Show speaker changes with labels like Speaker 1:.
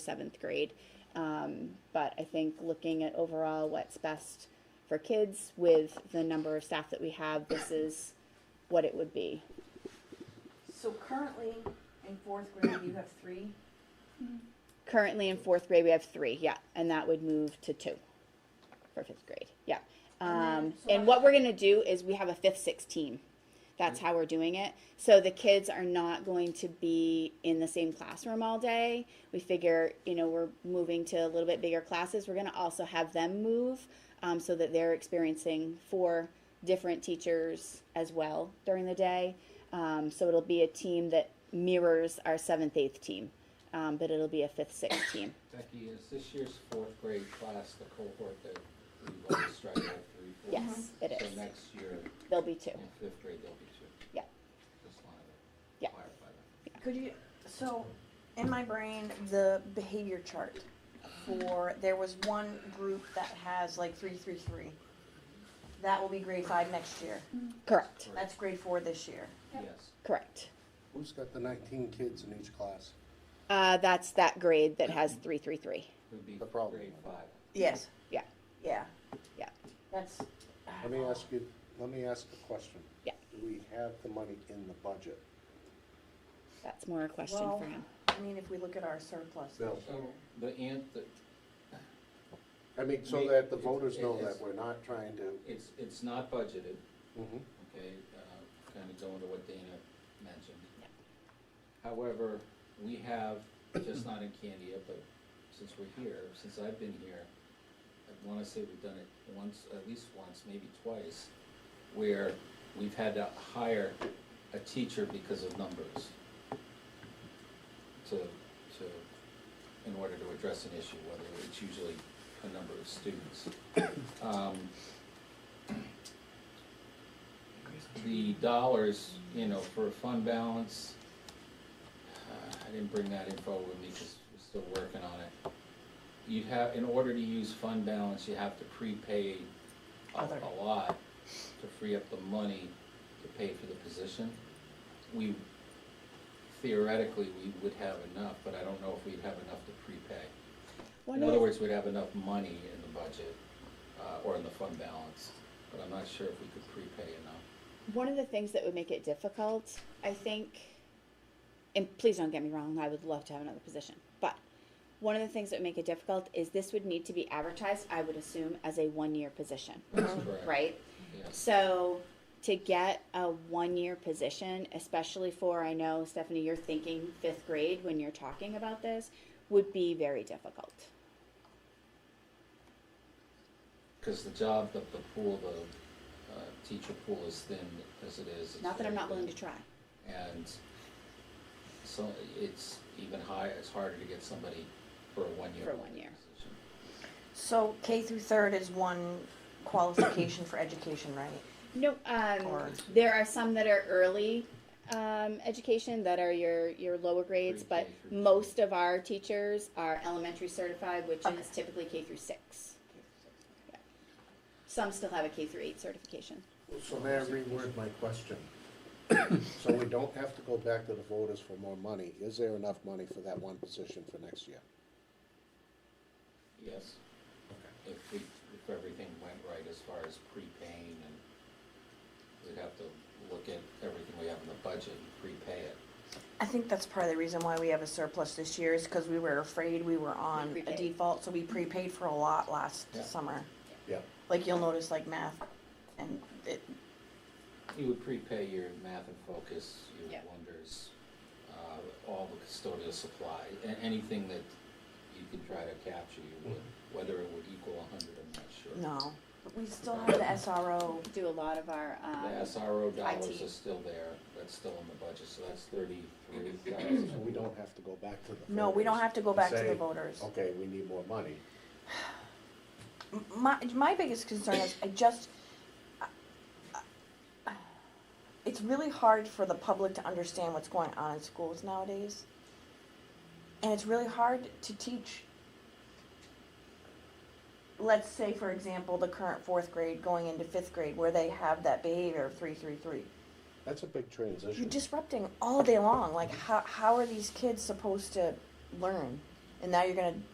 Speaker 1: seventh grade. Um, but I think looking at overall what's best for kids with the number of staff that we have, this is what it would be.
Speaker 2: So currently, in fourth grade, you have three,
Speaker 1: Currently in fourth grade, we have three, yeah, and that would move to two for fifth grade, yeah. Um,
Speaker 2: And then- so
Speaker 1: and what we're gonna do is we have a fifth, sixth team. That's how we're doing it. So the kids are not going to be in the same classroom all day. We figure, you know, we're moving to a little bit bigger classes. We're gonna also have them move, um, so that they're experiencing four different teachers as well during the day. Um, so it'll be a team that mirrors our seventh, eighth team, um, but it'll be a fifth, sixth team.
Speaker 3: Becky, is this year's fourth grade class the cohort that we want to strive out three, four?
Speaker 1: Yes, it
Speaker 3: Uh-huh. So
Speaker 1: is.
Speaker 3: next year,
Speaker 1: There'll be two.
Speaker 3: in fifth grade, there'll be two?
Speaker 1: Yeah.
Speaker 3: Just wanted
Speaker 1: Yeah.
Speaker 3: to clarify that.
Speaker 2: could you, so, in my brain, the behavior chart for, there was one group that has like three, three, three. That will be grade five next year,
Speaker 1: Correct,
Speaker 2: that's grade four this year.
Speaker 3: Yes.
Speaker 1: correct.
Speaker 4: Who's got the nineteen kids in each class?
Speaker 1: Uh, that's that grade that has three, three, three.
Speaker 3: Would be
Speaker 4: The problem.
Speaker 3: grade five.
Speaker 2: Yes.
Speaker 1: Yeah.
Speaker 2: Yeah.
Speaker 1: Yeah.
Speaker 2: That's,
Speaker 4: Let me ask you, let me ask a question.
Speaker 1: Yeah.
Speaker 4: Do we have the money in the budget?
Speaker 1: That's more a question
Speaker 2: uh, Well-
Speaker 1: for him.
Speaker 2: I mean, if we look at our surplus
Speaker 4: Bill.
Speaker 2: this year.
Speaker 3: So the ant, the,
Speaker 4: I mean, so
Speaker 3: We-
Speaker 4: that the
Speaker 3: it-
Speaker 4: voters know
Speaker 3: it is-
Speaker 4: that we're not trying to,
Speaker 3: it's, it's not budgeted,
Speaker 4: Mhm.
Speaker 3: okay, uh, kind of going to what Dana mentioned. However, we have, just not in Candia, but since we're here, since I've been here, I wanna say we've done it once, at least once, maybe twice, where we've had to hire a teacher because of numbers to, to, in order to address an issue, whether it's usually a number of students. Um, the dollars, you know, for fund balance, uh, I didn't bring that info with me because we're still working on it. You have, in order to use fund balance, you have to prepay a
Speaker 2: Other.
Speaker 3: a lot to free up the money to pay for the position. We theoretically, we would have enough, but I don't know if we'd have enough to prepay. In
Speaker 1: One
Speaker 3: other
Speaker 1: of,
Speaker 3: words, we'd have enough money in the budget, uh, or in the fund balance, but I'm not sure if we could prepay enough.
Speaker 1: one of the things that would make it difficult, I think, and please don't get me wrong, I would love to have another position, but one of the things that would make it difficult is this would need to be advertised, I would assume, as a one-year position,
Speaker 3: That's correct.
Speaker 1: right?
Speaker 3: Yes.
Speaker 1: So to get a one-year position, especially for, I know, Stephanie, you're thinking fifth grade when you're talking about this, would be very difficult.
Speaker 3: Because the job, the, the pool, the, uh, teacher pool is thin as it is. It's
Speaker 1: Not that I'm
Speaker 3: very
Speaker 1: not willing to
Speaker 3: thin.
Speaker 1: try.
Speaker 3: And so it's even higher, it's harder to get somebody for a one-year.
Speaker 1: For one year.
Speaker 3: position.
Speaker 2: So K through third is one qualification for education, right?
Speaker 1: No, um,
Speaker 2: Or-
Speaker 1: there are some that are early um, education that are your your lower grades,
Speaker 3: Pre-K
Speaker 1: but
Speaker 3: through
Speaker 1: most of our teachers are elementary certified, which is typically K through six. Yeah. Some still have a K through eight certification.
Speaker 4: so may I reword my question? So we don't have to go back to the voters for more money, is there enough money for that one position for next year?
Speaker 3: Yes. If we, if everything went right as far as prepaying and we'd have to look at everything we have in the budget and prepay it.
Speaker 2: I think that's part of the reason why we have a surplus this year is because we were afraid we were on a
Speaker 1: prepaid.
Speaker 2: default, so we prepaid for a lot last
Speaker 3: Yeah.
Speaker 2: summer.
Speaker 4: Yeah.
Speaker 2: Like you'll notice like math and it,
Speaker 3: You would prepay your math and focus, your
Speaker 1: Yeah.
Speaker 3: wonders, uh, all the custodial supply, a- anything that you can try to capture, you would.
Speaker 4: Mm-hmm.
Speaker 3: Whether it would equal a hundred, I'm not sure.
Speaker 2: no. But we still have the SRO.
Speaker 1: Do a lot of our um,
Speaker 3: The SRO dollars
Speaker 1: IT.
Speaker 3: are still there, that's still in the budget, so that's thirty-three thousand.
Speaker 4: So we don't have to go back to the.
Speaker 2: No, we don't
Speaker 4: voters
Speaker 2: have to go
Speaker 4: and
Speaker 2: back to
Speaker 4: say,
Speaker 2: the voters.
Speaker 4: Okay, we need more money.
Speaker 2: M- My, my biggest concern is I just, it's really hard for the public to understand what's going on in schools nowadays. And it's really hard to teach, let's say, for example, the current fourth grade going into fifth grade where they have that behavior of three, three, three.
Speaker 4: That's a big transition.
Speaker 2: You're disrupting all day long. Like, how, how are these kids supposed to learn? and now you're gonna